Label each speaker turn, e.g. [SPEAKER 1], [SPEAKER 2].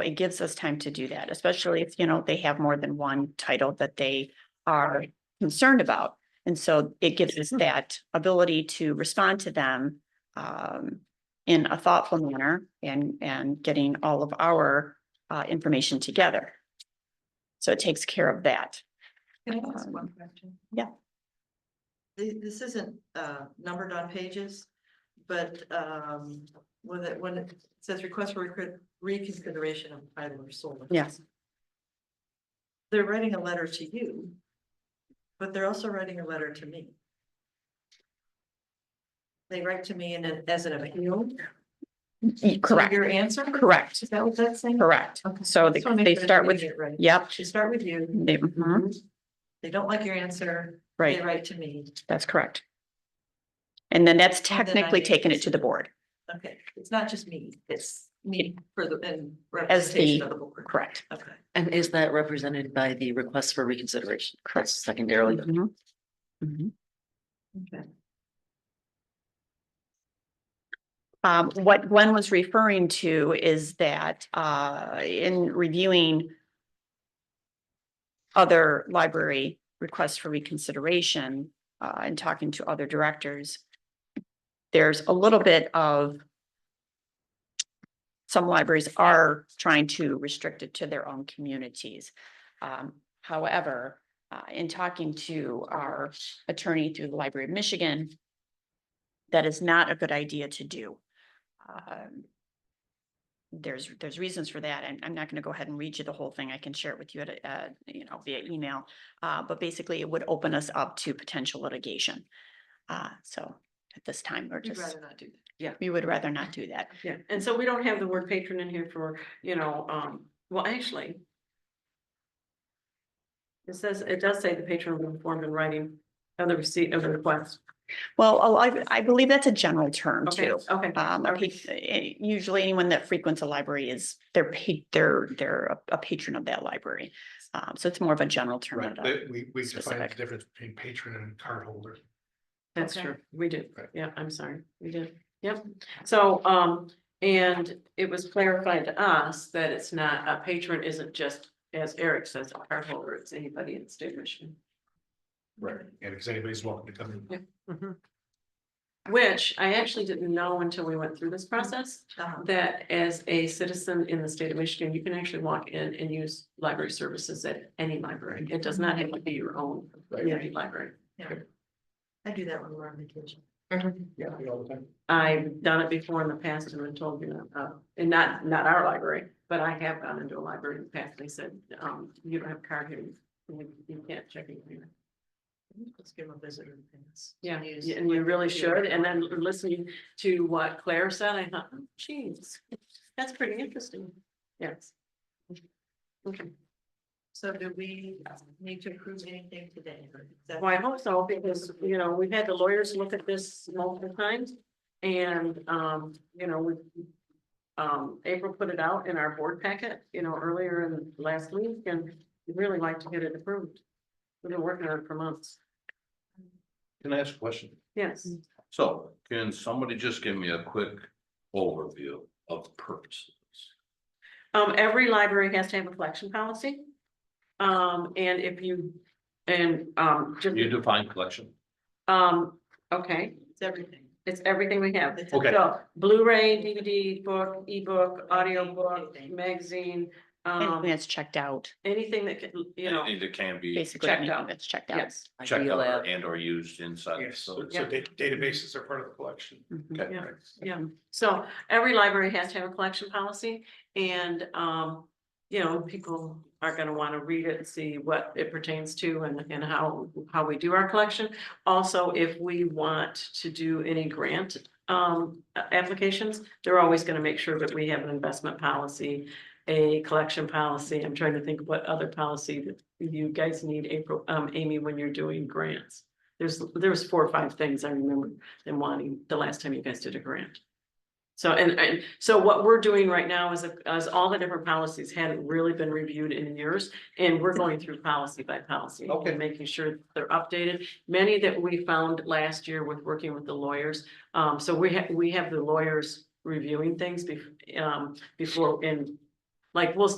[SPEAKER 1] It gives us time to do that, especially if, you know, they have more than one title that they are concerned about. And so it gives
[SPEAKER 2] Hmm.
[SPEAKER 1] us that ability to respond to them um, in a thoughtful manner and, and getting all of our uh, information together. So it takes care of that.
[SPEAKER 2] Can I ask
[SPEAKER 1] Um,
[SPEAKER 2] one question?
[SPEAKER 1] yeah.
[SPEAKER 2] Th- This, isn't, uh, numbered on pages, but, um, when it, when it says request for recon- reconsideration of title or sole.
[SPEAKER 1] Yes.
[SPEAKER 2] They're writing a letter to you, but they're also writing a letter to me. They write to me in an, as an appeal.
[SPEAKER 1] Y-
[SPEAKER 2] to
[SPEAKER 1] Correct,
[SPEAKER 2] Your answer?
[SPEAKER 1] correct,
[SPEAKER 2] Is that what that's saying?
[SPEAKER 1] correct.
[SPEAKER 2] Okay.
[SPEAKER 1] So they,
[SPEAKER 2] Just wanna make
[SPEAKER 1] they
[SPEAKER 2] sure I'm
[SPEAKER 1] start with,
[SPEAKER 2] getting it right.
[SPEAKER 1] yep,
[SPEAKER 2] They start with you.
[SPEAKER 1] they- mhm,
[SPEAKER 2] They don't like your answer. They
[SPEAKER 1] right,
[SPEAKER 2] write to me.
[SPEAKER 1] that's correct. And then that's
[SPEAKER 2] And then I
[SPEAKER 1] technically
[SPEAKER 2] need to
[SPEAKER 1] taking it to the
[SPEAKER 2] consider.
[SPEAKER 1] board,
[SPEAKER 2] Okay, it's not just me, it's me for the, and
[SPEAKER 1] As the-
[SPEAKER 2] representation of the board.
[SPEAKER 1] correct.
[SPEAKER 2] Okay,
[SPEAKER 3] And is that represented by the request for reconsideration?
[SPEAKER 1] Correct.
[SPEAKER 3] That's Secondarily,
[SPEAKER 1] Mhm. Mhm.
[SPEAKER 2] okay.
[SPEAKER 1] Um, what Gwen was referring to is that, uh, in reviewing other library requests for reconsideration, uh, and talking to other directors, there's a little bit of some libraries are trying to restrict it to their own communities. Um, however, uh, in talking to our attorney through the Library of Michigan, that is not a good idea to do um, There's, there's reasons for that, and I'm not gonna go ahead and read you the whole thing. I can share it with you at, a- uh, you know, via email. Uh, but basically it would open us up to potential litigation. Uh, so at this time, we're
[SPEAKER 2] You'd
[SPEAKER 1] just,
[SPEAKER 2] rather not do that.
[SPEAKER 1] we would rather not do that.
[SPEAKER 4] Yeah, and so we don't have the word patron in here for, you know, um, well, actually. It says, it does say the patron will inform in writing of the receipt of the request.
[SPEAKER 1] Well, oh, I, I believe that's a general term
[SPEAKER 4] Okay,
[SPEAKER 1] too.
[SPEAKER 4] okay,
[SPEAKER 1] Um, a
[SPEAKER 4] Okay.
[SPEAKER 1] pa- eh, usually anyone that frequents a library is, they're paid, they're, they're a- a patron of that library. Um, so it's more of a general term.
[SPEAKER 5] Right,
[SPEAKER 1] than a-
[SPEAKER 5] but we, we define the
[SPEAKER 1] specific.
[SPEAKER 5] difference between patron and cardholder.
[SPEAKER 4] that's
[SPEAKER 2] Okay.
[SPEAKER 4] true, we did,
[SPEAKER 5] Right.
[SPEAKER 4] yeah, I'm sorry, we did, yep, so, um, and it was clarified to us that it's not, a patron isn't just. As Eric says, a cardholder, it's anybody in state Michigan.
[SPEAKER 5] Right. And because anybody's welcome to come in.
[SPEAKER 4] Which I actually didn't know until we went through this process,
[SPEAKER 2] Uh-huh.
[SPEAKER 4] that as a citizen in the state of Michigan, you can actually walk in and use library services at any library. It does not have to be your own community library.
[SPEAKER 2] I do that when we're on vacation.
[SPEAKER 3] Mm-hmm.
[SPEAKER 5] Yeah, all the time.
[SPEAKER 4] I've done it before in the past and been told, you know, uh, and not, not our library, but I have gone into a library in the past. They said, um, you don't have a card here. You you can't check in here.
[SPEAKER 2] Let's give them a visitor. pass.
[SPEAKER 4] Yeah,
[SPEAKER 2] Use-
[SPEAKER 4] y- and you really should. And then listening to what Claire said, I thought, oh, geez, that's pretty interesting. Yes. Okay.
[SPEAKER 2] So do we need to approve anything today? or is that-
[SPEAKER 4] Well, I hope so, because, you know, we've had the lawyers look at this multiple times, and, um, you know, we. Um, April put it out in our board packet, you know, earlier in last week, and we'd really like to get it approved. We've been working on it for months,
[SPEAKER 6] Can I ask a question?
[SPEAKER 4] yes,
[SPEAKER 6] So can somebody just give me a quick overview of the purpose?
[SPEAKER 4] um, every library has to have a collection policy. Um, and if you, and, um, just,
[SPEAKER 6] You define collection?
[SPEAKER 4] um, okay,
[SPEAKER 2] It's everything.
[SPEAKER 4] it's everything we have,
[SPEAKER 2] It's
[SPEAKER 6] Okay.
[SPEAKER 4] So Blu-ray, DVD, book, ebook, audiobook, magazine,
[SPEAKER 1] Anything
[SPEAKER 4] um,
[SPEAKER 1] that's checked out,
[SPEAKER 4] anything that can, you know,
[SPEAKER 6] Anything that can be
[SPEAKER 1] basically
[SPEAKER 4] checked
[SPEAKER 1] anything
[SPEAKER 4] out.
[SPEAKER 1] that's checked out.
[SPEAKER 4] yes.
[SPEAKER 6] checked
[SPEAKER 3] ideal
[SPEAKER 6] out
[SPEAKER 3] app,
[SPEAKER 6] and or used inside. the
[SPEAKER 5] Yes, so
[SPEAKER 6] facility.
[SPEAKER 5] so da- databases are part of the collection.
[SPEAKER 1] Mhm.
[SPEAKER 6] Okay.
[SPEAKER 4] Mm-hmm. Yeah.
[SPEAKER 6] right.
[SPEAKER 4] Yeah, so every library has to have a collection policy and, um, you know, people are gonna wanna read it and see what it pertains to and, and how, how we do our collection. Also, if we want to do any grant, um, a- applications, they're always gonna make sure that we have an investment policy, a collection policy. I'm trying to think what other policy that you guys need, April, um, Amy, when you're doing grants. There's, there's four or five things I remember them wanting the last time you guys did a grant. So, and, and, so what we're doing right now is, is all the different policies hadn't really been reviewed in years, and we're going through policy by policy. and
[SPEAKER 6] Okay.
[SPEAKER 4] Making sure that they're updated, many that we found last year with working with the lawyers, um, so we have, we have the lawyers reviewing things bef- um, before, and Like, we'll,